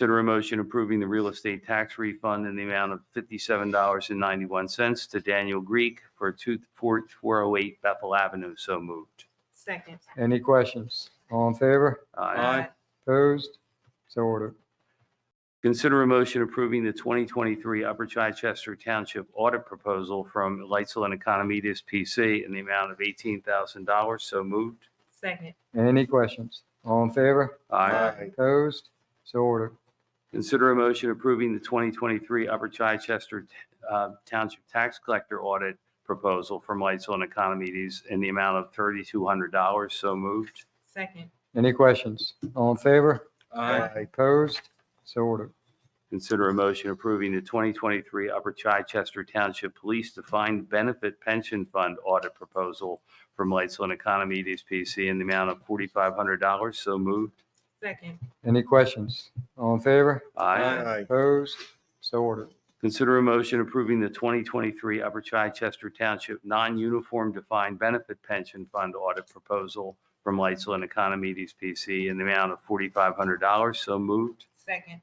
Consider a motion approving the real estate tax refund in the amount of $57.91 to Daniel Greek for 24408 Bethel Avenue. So moved. Uh, Second. Any questions? All in favor? Aye. Opposed? So ordered. Consider a motion approving the 2023 Upper Chichester Township audit proposal from Lightsville and Economides PC in the amount of $18,000. So moved. Second. Any questions? All in favor? Aye. Opposed? So ordered. Consider a motion approving the 2023 Upper Chichester uh, Township Tax Collector Audit Proposal from Lightsville and Economides in the amount of $3,200. So moved. Second. Any questions? All in favor? Aye. Opposed? So ordered. Consider a motion approving the 2023 Upper Chichester Township Police Defined Benefit Pension Fund Audit Proposal from Lightsville and Economides PC in the amount of $4,500. So moved. Second. Any questions? All in favor? Aye. Opposed? So ordered. Consider a motion approving the 2023 Upper Chichester Township Non-Uniform Defined Benefit Pension Fund Audit Proposal from Lightsville and Economides PC in the amount of $4,500. So moved. Second.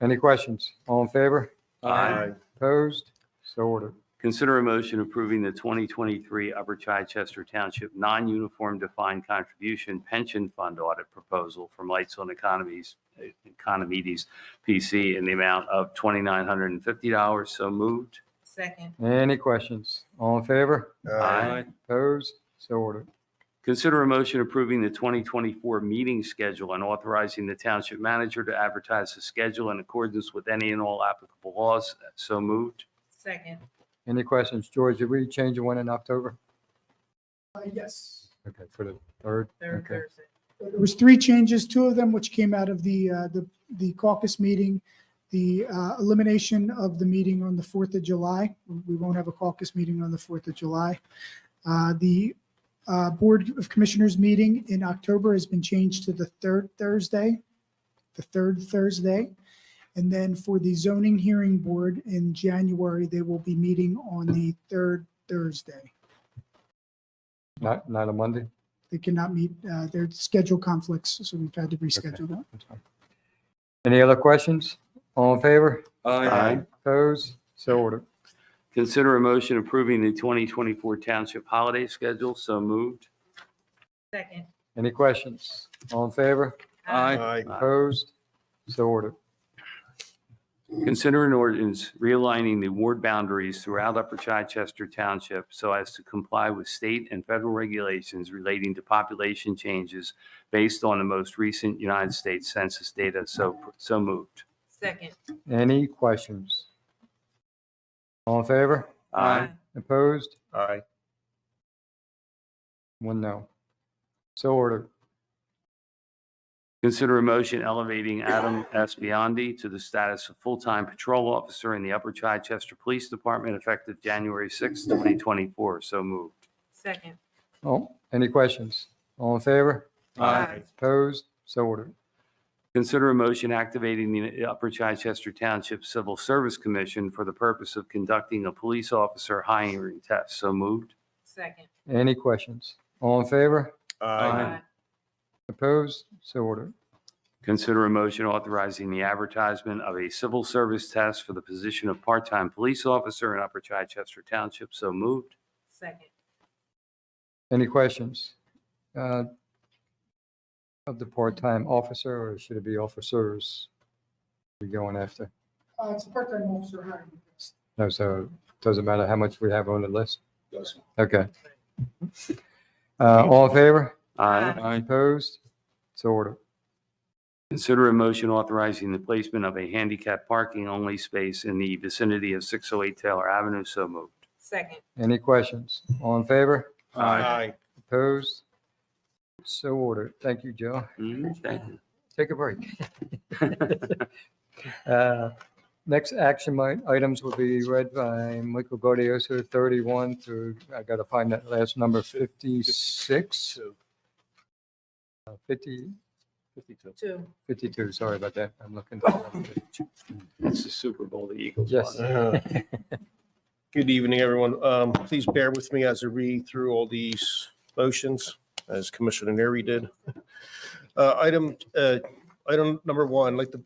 Any questions? All in favor? Aye. Opposed? So ordered. Consider a motion approving the 2023 Upper Chichester Township Non-Uniform Defined Contribution Pension Fund Audit Proposal from Lightsville and Economies, Economides PC in the amount of $2,950. So moved. Second. Any questions? All in favor? Opposed? So ordered. Consider a motion approving the 2024 meeting schedule and authorizing the township manager to advertise the schedule in accordance with any and all applicable laws. So moved. Second. Any questions? George, did we change the one in October? Uh, Yes. Okay, for the third? Third Okay. Thursday. There was three changes, two of them which came out of the, uh, the the caucus meeting, the uh, elimination of the meeting on the 4th of July. We won't have a caucus meeting on the 4th of July. Uh, The uh, Board of Commissioners meeting in October has been changed to the third Thursday, the third Thursday. And then for the zoning hearing board in January, they will be meeting on the third Thursday. Not, not a Monday? They cannot meet, uh, their schedule conflicts, so we've had to reschedule that. That's fine. Any other questions? All in favor? Aye. Opposed? So ordered. Consider a motion approving the 2024 township holiday schedule. So moved. Second. Any questions? All in favor? Aye. Opposed? So ordered. Consider an ordinance realigning the ward boundaries throughout Upper Chichester Township so as to comply with state and federal regulations relating to population changes based on the most recent United States Census data. So, so moved. Second. Any questions? All in favor? Aye. Opposed? Aye. One no. So ordered. Consider a motion elevating Adam S. Biondi to the status of full-time patrol officer in the Upper Chichester Police Department effective January 6, 2024. So moved. Second. Oh, any questions? All in favor? Aye. Opposed? So ordered. Consider a motion activating the Upper Chichester Township Civil Service Commission for the purpose of conducting a police officer hiring test. So moved. Second. Any questions? All in favor? Aye. Opposed? So ordered. Consider a motion authorizing the advertisement of a civil service test for the position of part-time police officer in Upper Chichester Township. So moved. Second. Any questions? Uh, Of the part-time officer, or should it be officers we're going after? Uh, it's a part-time officer hiring. No, so doesn't matter how much we have on the list? Okay. Uh, All in favor? Aye. Opposed? So ordered. Consider a motion authorizing the placement of a handicap parking only space in the vicinity of 608 Taylor Avenue. So moved. Second. Any questions? All in favor? Aye. Opposed? So ordered. Thank you, Joe. Mm, Thank you. Take a break. Uh, Next action mi- items will be read by Michael Gaudioso, 31 through, I got to find that last number, 56, Two. uh, 50, Fifty-two. Two. 52, sorry about that. I'm looking. It's the Super Bowl, the Eagles. Yes. won. Uh, Good evening, everyone. Um, Please bear with me as I read through all these motions, as Commissioner Neri did. Uh, Item, uh, item number one, I'd like to